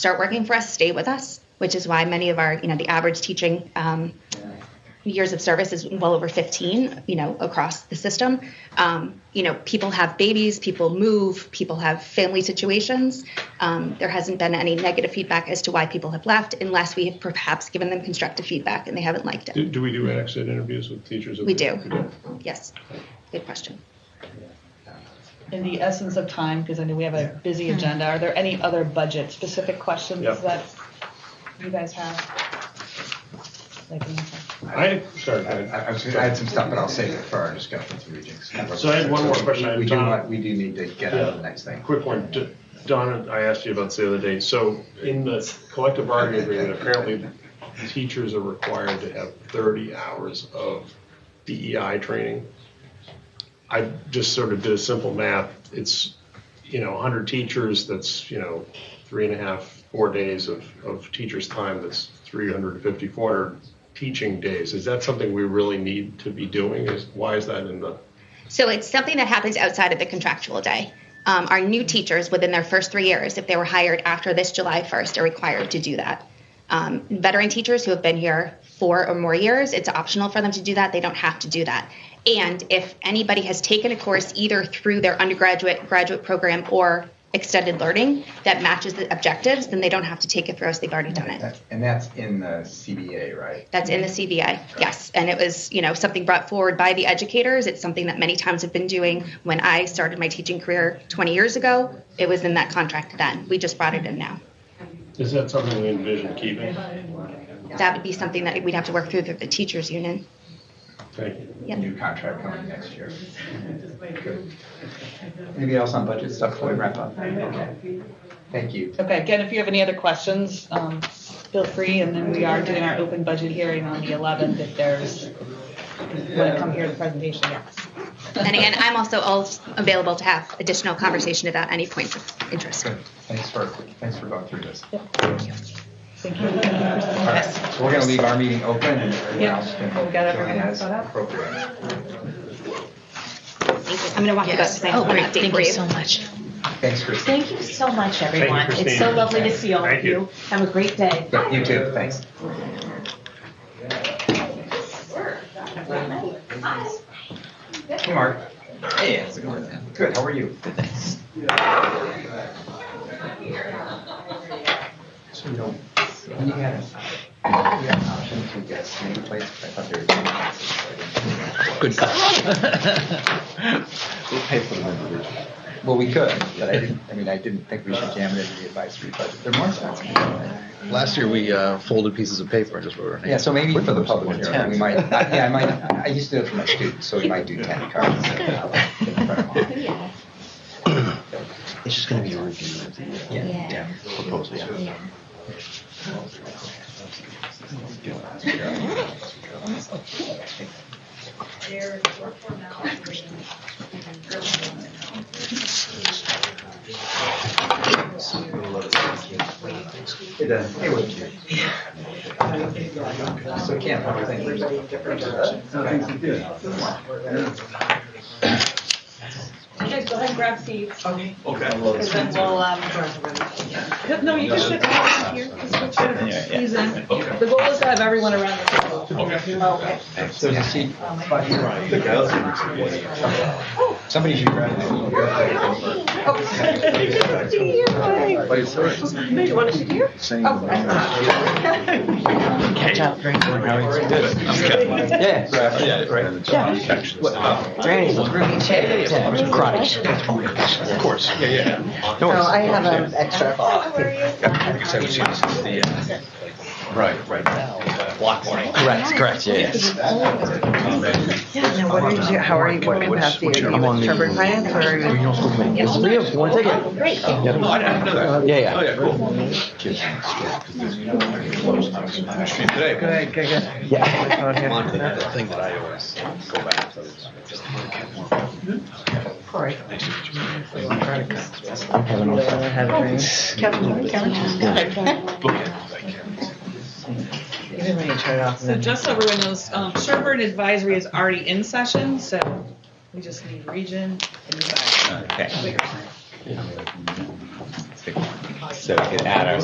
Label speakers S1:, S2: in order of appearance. S1: start working for us, stay with us, which is why many of our, you know, the average teaching um, years of service is well over 15, you know, across the system. Um, you know, people have babies, people move, people have family situations. Um, there hasn't been any negative feedback as to why people have left unless we have perhaps given them constructive feedback and they haven't liked
S2: Do,
S1: it.
S2: do we do exit interviews with teachers?
S1: We do. Yes. Good question.
S3: In the essence of time, because I know we have a busy agenda, are there any other budget specific questions
S2: Yeah.
S3: that you guys have? Like,
S2: I, sorry, go
S4: I,
S2: ahead.
S4: I was gonna- I had some stuff, but I'll save it for our discussion with Regents.
S2: So I had one more question.
S4: We do,
S2: Tom.
S4: want- we do need to get out of the next thing.
S2: quick one. D- Donna, I asked you about this the other day. So in the collective bargaining agreement, apparently teachers are required to have 30 hours of DEI training. I just sort of did a simple math. It's, you know, 100 teachers, that's, you know, three and a half, four days of, of teachers' time, that's 350, 400 teaching days. Is that something we really need to be doing? Is, why is that in the?
S1: So it's something that happens outside of the contractual day. Um, our new teachers, within their first three years, if they were hired after this July 1st, are required to do that. Um, veteran teachers who have been here four or more years, it's optional for them to do that. They don't have to do that. And if anybody has taken a course either through their undergraduate, graduate program, or extended learning that matches the objectives, then they don't have to take it through us. They've already done it.
S4: That- And that's in the CBA, right?
S1: That's in the CBI, yes. And it was, you know, something brought forward by the educators. It's something that many times have been doing. When I started my teaching career 20 years ago, it was in that contract then. We just brought it in now.
S2: Is that something we envision keeping?
S1: That would be something that we'd have to work through through the teachers union.
S2: Thank you.
S1: Yep.
S4: New contract coming next year. Good. Anybody else on budget stuff before we wrap up? Okay. Thank you.
S3: okay, again, if you have any other questions, um, feel free, and then we are doing our open budget hearing on the eleventh if there's, want to come hear the presentation, yes.
S1: And again, I'm also all available to have additional conversation about any points of interest.
S4: Good. Thanks for, thanks for going through this.
S3: Thank you.
S4: All right, so we're gonna leave our meeting open and everyone
S3: Yeah.
S4: else can
S3: We've got
S4: join
S3: everyone
S4: as
S3: set up.
S4: appropriate.
S1: Thank you. I'm going to walk you
S5: Yes.
S1: guys. I have
S5: Oh,
S1: an
S5: great.
S1: update
S5: Thank
S1: for
S5: you
S1: you.
S5: so much.
S4: Thanks, Christine.
S5: Thank you so much, everyone. It's so
S2: Christine.
S5: lovely to see all
S2: Thank
S5: of
S2: you.
S5: you. Have a great day.
S4: But You too, thanks. Hey, Mark. Hey, how's it going? Good, how are you? Good, thanks. So, you know, we had, we had an option to get nameplates, but I thought they were. doing-
S6: Good catch. We'll pay for them.
S4: Well, we could, but I didn't, I mean, I didn't think we should jam it into the advisory budget. They're more expensive. right?
S6: Last year, we uh, folded pieces of paper and just wrote our names.
S4: Yeah, so maybe for the public,
S6: One
S4: hearing,
S6: tenth.
S4: we might, I- yeah, I might, I used to do it for my students, so we might do ten cards.
S6: It's just gonna be a review of the, uh,
S4: Yeah.
S6: yeah, proposal, yeah.
S4: It does. It would. So Cam, how are things?
S7: You guys go ahead and grab seats. Okay. Okay. Because then we'll, um, no, you just should have here, because he's in. The goal is to have everyone around the table. Okay. Oh,
S4: So you see, but you're right. Somebody should grab it.
S6: But it's all right.
S7: No, you want to sit here?
S6: Same. Good job, very good. How are you?
S4: Yeah, grab it.
S6: Oh, Yeah, uh, right.
S8: Right.
S6: Karate. Of course, yeah, yeah. No,
S8: No, Oh, I
S6: worries.
S8: have an extra.
S6: I guess I would say this is the, uh, right, right now, block warning. Correct, correct, yeah, yes.
S8: Now, what are you, how are you, what capacity are you in Trevor Finance or are you?
S6: Yes, we have one ticket. Great. Yeah, yeah. Oh, yeah, cool.
S8: Good, good, good.
S6: Yeah. The thing that I always go back to is just
S8: Corey. Have a drink. Kevin, Even when you turn it off.
S7: So just so everyone knows, um, Sherburne Advisory is already in session, so we just need region and advisory.
S6: So we could add our